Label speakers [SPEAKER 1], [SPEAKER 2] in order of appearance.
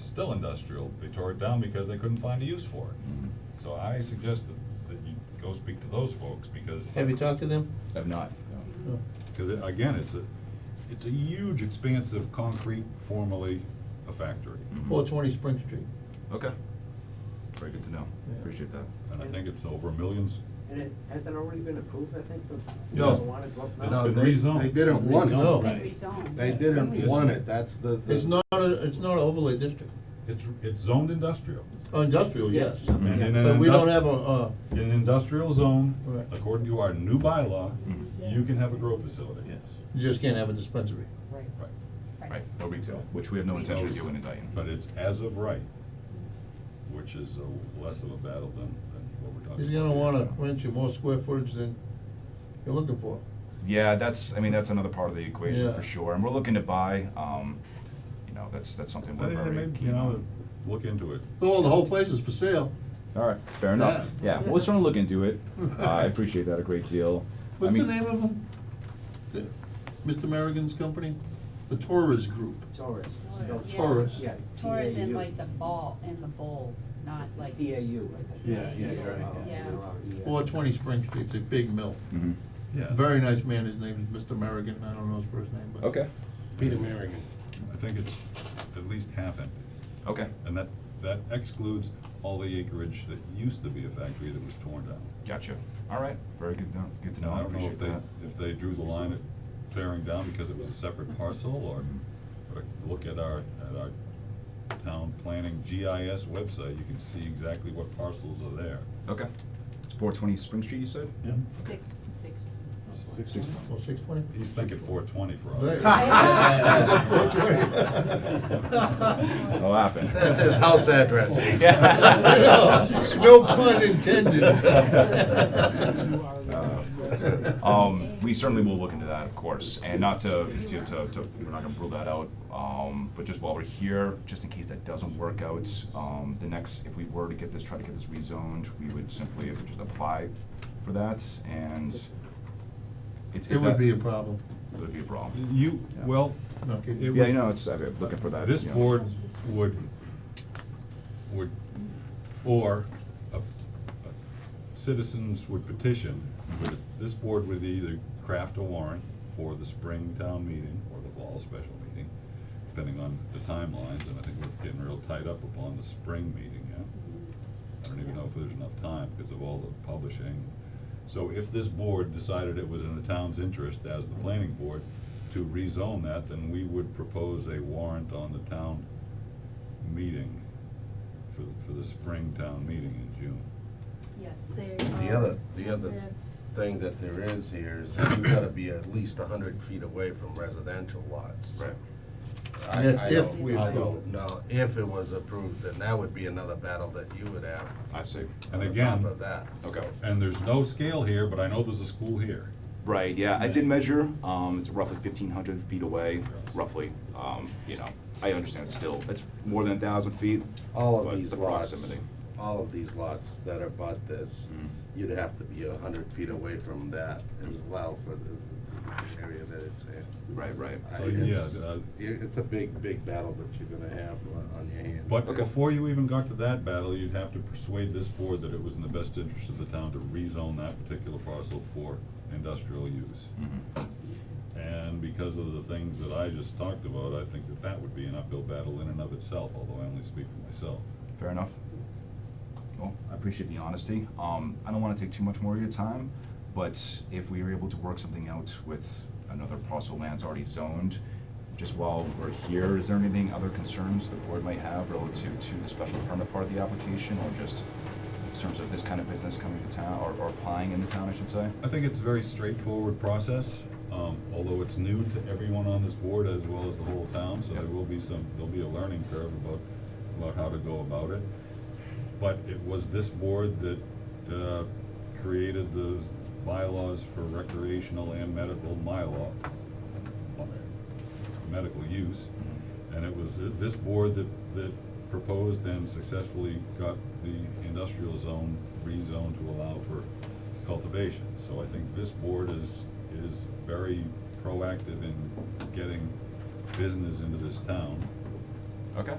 [SPEAKER 1] still industrial. They tore it down because they couldn't find a use for
[SPEAKER 2] Mm-hmm.
[SPEAKER 1] it. So I suggest that, that you go speak to those folks because,
[SPEAKER 3] Have you talked to them?
[SPEAKER 2] I've not,
[SPEAKER 3] No.
[SPEAKER 1] because it- again, it's a, it's a huge expanse of concrete formerly a factory.
[SPEAKER 3] Four twenty Spring Street.
[SPEAKER 2] Mm-hmm. Okay. Very good to know,
[SPEAKER 3] Yeah.
[SPEAKER 2] appreciate that.
[SPEAKER 1] And I think it's over millions.
[SPEAKER 4] And it, has that already been approved, I think, for
[SPEAKER 3] No.
[SPEAKER 4] marijuana to go up
[SPEAKER 1] It's
[SPEAKER 4] now?
[SPEAKER 1] been
[SPEAKER 5] they-
[SPEAKER 1] rezoned.
[SPEAKER 5] They didn't want
[SPEAKER 3] No.
[SPEAKER 5] it.
[SPEAKER 6] They rezoned.
[SPEAKER 5] They didn't want it, that's the. the-
[SPEAKER 3] It's not, a- it's not an overlay district,
[SPEAKER 1] It's, it's zoned industrial.
[SPEAKER 3] Oh, industrial, yes.
[SPEAKER 1] And in an
[SPEAKER 3] But we don't
[SPEAKER 1] industri-
[SPEAKER 3] have a, uh,
[SPEAKER 1] In an industrial zone,
[SPEAKER 3] Right.
[SPEAKER 1] according to our new bylaw, you can have a grow facility. Yes.
[SPEAKER 3] you just can't have a dispensary.
[SPEAKER 4] Right.
[SPEAKER 1] Right,
[SPEAKER 2] Right, no retail, which we have no
[SPEAKER 6] Retail.
[SPEAKER 2] intention of doing in Dayton.
[SPEAKER 1] but it's as of right, which is a less of a battle than, than what we're talking.
[SPEAKER 3] He's gonna
[SPEAKER 1] about.
[SPEAKER 3] wanna rent you more square footage than you're looking for.
[SPEAKER 2] Yeah, that's, I mean, that's another part of the equation
[SPEAKER 3] Yeah.
[SPEAKER 2] for sure, and we're looking to buy, um, you know, that's, that's something
[SPEAKER 1] I
[SPEAKER 2] we're
[SPEAKER 1] think they
[SPEAKER 2] very
[SPEAKER 1] may,
[SPEAKER 2] keen
[SPEAKER 1] you know,
[SPEAKER 2] on.
[SPEAKER 1] look into it.
[SPEAKER 3] So the whole place is for sale,
[SPEAKER 2] All right, fair enough, yeah, we'll certainly look into it, Uh, I appreciate that a great deal. I
[SPEAKER 3] what's the
[SPEAKER 2] mean-
[SPEAKER 3] name of them? The- Mr. Merrigan's company, the Torres Group.
[SPEAKER 4] Taurus. it's not-
[SPEAKER 6] Yeah.
[SPEAKER 3] Taurus.
[SPEAKER 4] Yeah.
[SPEAKER 6] Taurus in
[SPEAKER 4] TAU.
[SPEAKER 6] like the ball, in the bowl, not like.
[SPEAKER 4] It's TAU, I think.
[SPEAKER 5] Yeah, yeah, you're right,
[SPEAKER 4] Oh,
[SPEAKER 6] yeah.
[SPEAKER 4] they're all ES.
[SPEAKER 3] Four twenty Spring Street, it's a big mill.
[SPEAKER 2] Mhm.
[SPEAKER 1] Yeah.
[SPEAKER 3] Very nice man, his name is Mr. Merrigan, I don't know his first name, but.
[SPEAKER 2] Okay,
[SPEAKER 5] Peter Merrigan.
[SPEAKER 1] I think it's at least half empty,
[SPEAKER 2] okay,
[SPEAKER 1] and that, that excludes all the acreage that used to be a factory that was torn down.
[SPEAKER 2] gotcha, all right, very good, to- good to know, I
[SPEAKER 1] I don't know
[SPEAKER 2] appreciate
[SPEAKER 1] if they,
[SPEAKER 2] that.
[SPEAKER 1] if they drew the line at tearing down because it was a separate parcel, or, or look at our, at our town planning GIS website, you can see exactly what parcels are there.
[SPEAKER 2] Okay, it's four twenty Spring Street, you said?
[SPEAKER 1] Yeah.
[SPEAKER 6] Six, six.
[SPEAKER 5] Six.
[SPEAKER 3] Well, six twenty?
[SPEAKER 1] He's thinking four twenty for
[SPEAKER 3] Right.
[SPEAKER 1] us.
[SPEAKER 2] It'll happen.
[SPEAKER 5] That's his house address.
[SPEAKER 3] No, no pun intended.
[SPEAKER 5] Uh,
[SPEAKER 2] Um, we certainly will look into that, of course, and not to, to, to, to- we're not gonna rule that out, um, but just while we're here, just in case that doesn't work out, um, the next, if we were to get this, try to get this rezoned, we would simply just apply for that, and it's,
[SPEAKER 3] It
[SPEAKER 2] is
[SPEAKER 3] would
[SPEAKER 2] that-
[SPEAKER 3] be a problem,
[SPEAKER 2] It would be a problem.
[SPEAKER 1] You, well,
[SPEAKER 3] no kidding.
[SPEAKER 1] It
[SPEAKER 2] Yeah,
[SPEAKER 1] would-
[SPEAKER 2] you know, it's, I'm looking for that.
[SPEAKER 1] this
[SPEAKER 2] you know.
[SPEAKER 1] board would, would, or a- a- citizens would petition, would- this board would either craft a warrant for the spring town meeting or the fall special meeting, depending on the timelines, and I think we're getting real tied up upon the spring meeting, yeah? I don't even know if there's enough time because of all the publishing. So if this board decided it was in the town's interest as the planning board to rezone that, then we would propose a warrant on the town meeting for, for the spring town meeting in June.
[SPEAKER 6] Yes, they.
[SPEAKER 5] The other, the other thing that there is here is that you gotta be at least a hundred feet away from residential lots.
[SPEAKER 2] Right.
[SPEAKER 5] I-
[SPEAKER 3] That's
[SPEAKER 5] I
[SPEAKER 3] if
[SPEAKER 5] don't-
[SPEAKER 3] we
[SPEAKER 5] I
[SPEAKER 3] approve
[SPEAKER 5] don't know, if it was approved, then that would be another battle that you would have
[SPEAKER 2] I see.
[SPEAKER 1] And
[SPEAKER 5] on top
[SPEAKER 1] again,
[SPEAKER 5] of that.
[SPEAKER 2] Okay.
[SPEAKER 1] and there's no scale here, but I know there's a school here.
[SPEAKER 2] Right, yeah, I did measure, um, it's roughly fifteen hundred feet away, roughly, um, you know, I understand it's still, it's more than a thousand feet.
[SPEAKER 5] All
[SPEAKER 2] but
[SPEAKER 5] of these
[SPEAKER 2] the
[SPEAKER 5] lots,
[SPEAKER 2] proximity. Mm-hmm.
[SPEAKER 5] all of these lots that are about this, you'd have to be a hundred feet away from that as well for the the area that it's in.
[SPEAKER 2] Right, right.
[SPEAKER 5] I-
[SPEAKER 1] So,
[SPEAKER 5] it's-
[SPEAKER 1] yeah, uh,
[SPEAKER 5] yeah, It's a big, big battle that you're gonna have uh, on- on your hands.
[SPEAKER 1] But
[SPEAKER 2] Okay.
[SPEAKER 1] before you even got to that battle, you'd have to persuade this board that it was in the best interest of the town to rezone that particular parcel for industrial use. Mm-hmm. And because of the things that I just talked about, I think that that would be an uphill battle in and of itself, although I only speak for myself.
[SPEAKER 2] Fair enough. Well, I appreciate the honesty. Um, I don't wanna take too much more of your time, but if we were able to work something out with another parcel of land's already zoned, just while we're here, is there anything, other concerns the board might have relative to the special permit part of the application, or just in terms of this kind of business coming to town, or, or applying in the town, I should say?
[SPEAKER 1] I think it's a very straightforward process, um, although it's new to everyone on this board as well as the whole town, so there will be some, there'll be a learning curve about, about how to go about it. But it was this board that, uh, created the bylaws for recreational and medical mylaw, medical use. And it was this board that, that proposed and successfully got the industrial zone rezoned to allow for cultivation. So I think this board is, is very proactive in getting business into this town.
[SPEAKER 2] Okay.